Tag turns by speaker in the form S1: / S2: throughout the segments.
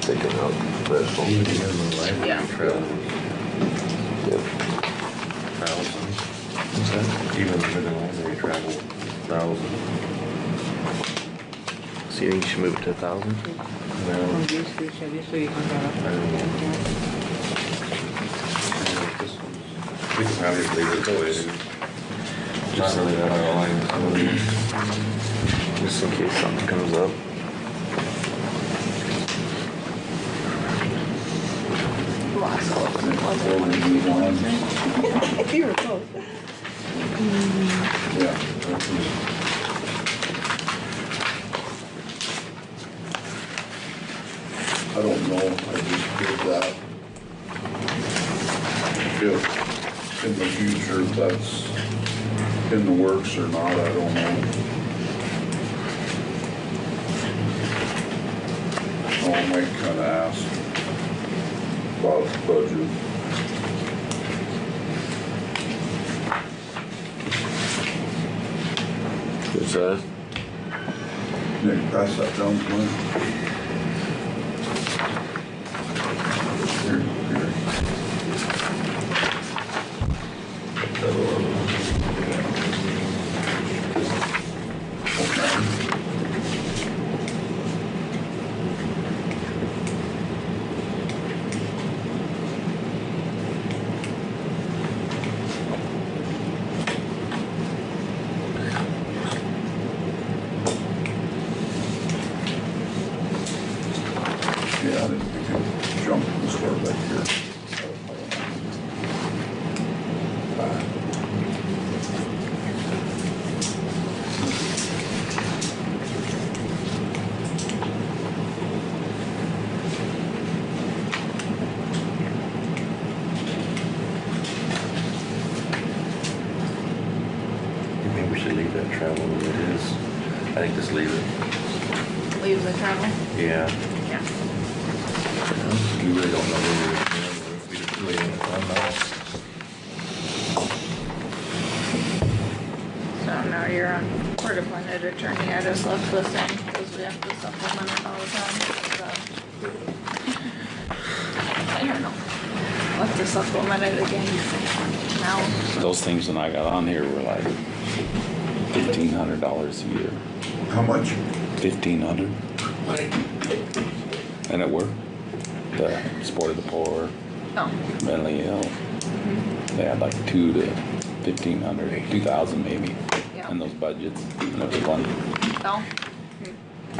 S1: taken out professional.
S2: Yeah.
S1: Yep.
S3: Even for the library travel, thousand.
S4: So you think you should move it to a thousand?
S3: No,
S2: Well, this is- this is-
S3: I don't know. We can probably just leave it the way it is. Not really that out of line.
S4: Just in case something comes up.
S2: Lost all of them. If you were close.
S3: Yeah.
S5: I don't know, I just did that. If in the future that's in the works or not, I don't know. I might kinda ask about the budget.
S1: What's that?
S5: Nick, pass that down to me. Here, here. Yeah, I didn't think I'd jump and start back here.
S3: Maybe we should leave that travel the way it is. I think just leave it.
S2: Leave the travel?
S3: Yeah.
S2: Yeah.
S3: We really don't know where we're going. We just really don't know.
S2: So now you're on court appointed attorney, I just left this in, because we have to supplement it all the time, so. I don't know. We'll have to supplement it again now.
S6: Those things when I got on here were like fifteen hundred dollars a year.
S5: How much?
S6: Fifteen hundred? And it worked. The support of the poor,
S2: Oh,
S6: mentally ill. They had like two to fifteen hundred, two thousand maybe
S2: Yeah.
S6: in those budgets. And it was funny.
S2: no,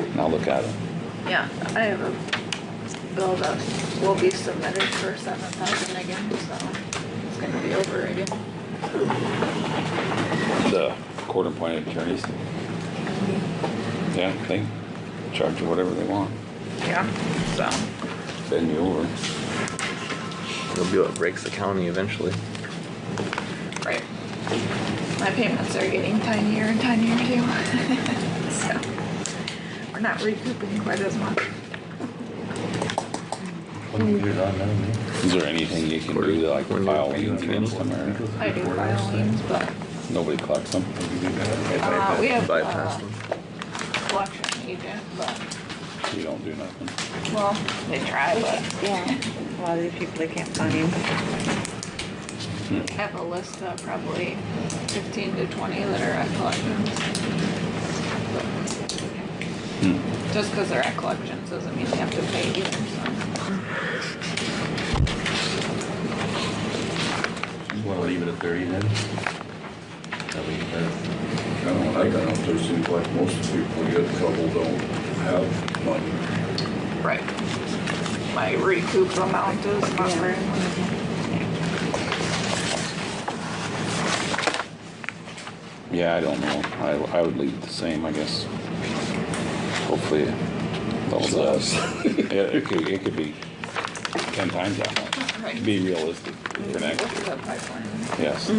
S6: And I'll look at it.
S2: yeah, I have a bill that will be submitted for seven thousand again, so it's gonna be over again.
S6: The court appointed attorneys. Yeah, they charge you whatever they want.
S2: Yeah.
S6: So, bend you over.
S4: It'll be what breaks the county eventually.
S2: Right. My payments are getting tinier and tinier too. So, we're not recouping quite as much.
S3: What do we do on that, man?
S6: Is there anything you can do to like
S4: When you-
S6: file liens against them or?
S2: I do file liens, but,
S6: Nobody collects them.
S2: uh, we have,
S4: Bypass
S2: uh,
S4: them.
S2: collection agent, but,
S6: You don't do nothing.
S2: well, they try, but
S7: Yeah, a lot of these people, they can't find him.
S2: I have a list of probably fifteen to twenty that are at collections.
S6: Hmm.
S2: But Just because they're at collections doesn't mean they have to pay either, so.
S3: You wanna leave it at thirty then? That we, uh,
S5: I don't know, I don't know, there seems like most people get a couple don't have money.
S2: Right. My recoup amount is not very much.
S6: Yeah, I don't know. I, I would leave it the same, I guess. Hopefully it levels out. It, it could, it could be ten times that much.
S2: Right.
S6: Be realistic for next
S2: What's
S6: year.
S2: the pipeline?
S6: Yes.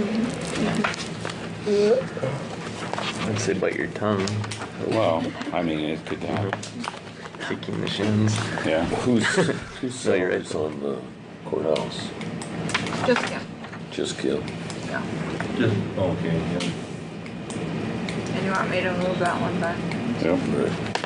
S4: I'd say bite your tongue,
S6: Well, I mean, it could happen.
S4: kicking the shins.
S6: Yeah.
S1: Who's, who's
S4: No, you're right.
S1: salaries on the courthouse?
S2: Just, yeah,
S1: Just kill.
S2: yeah.
S3: just, okay, yeah.
S2: And you want me to move that one back?
S6: Yep.
S1: Right.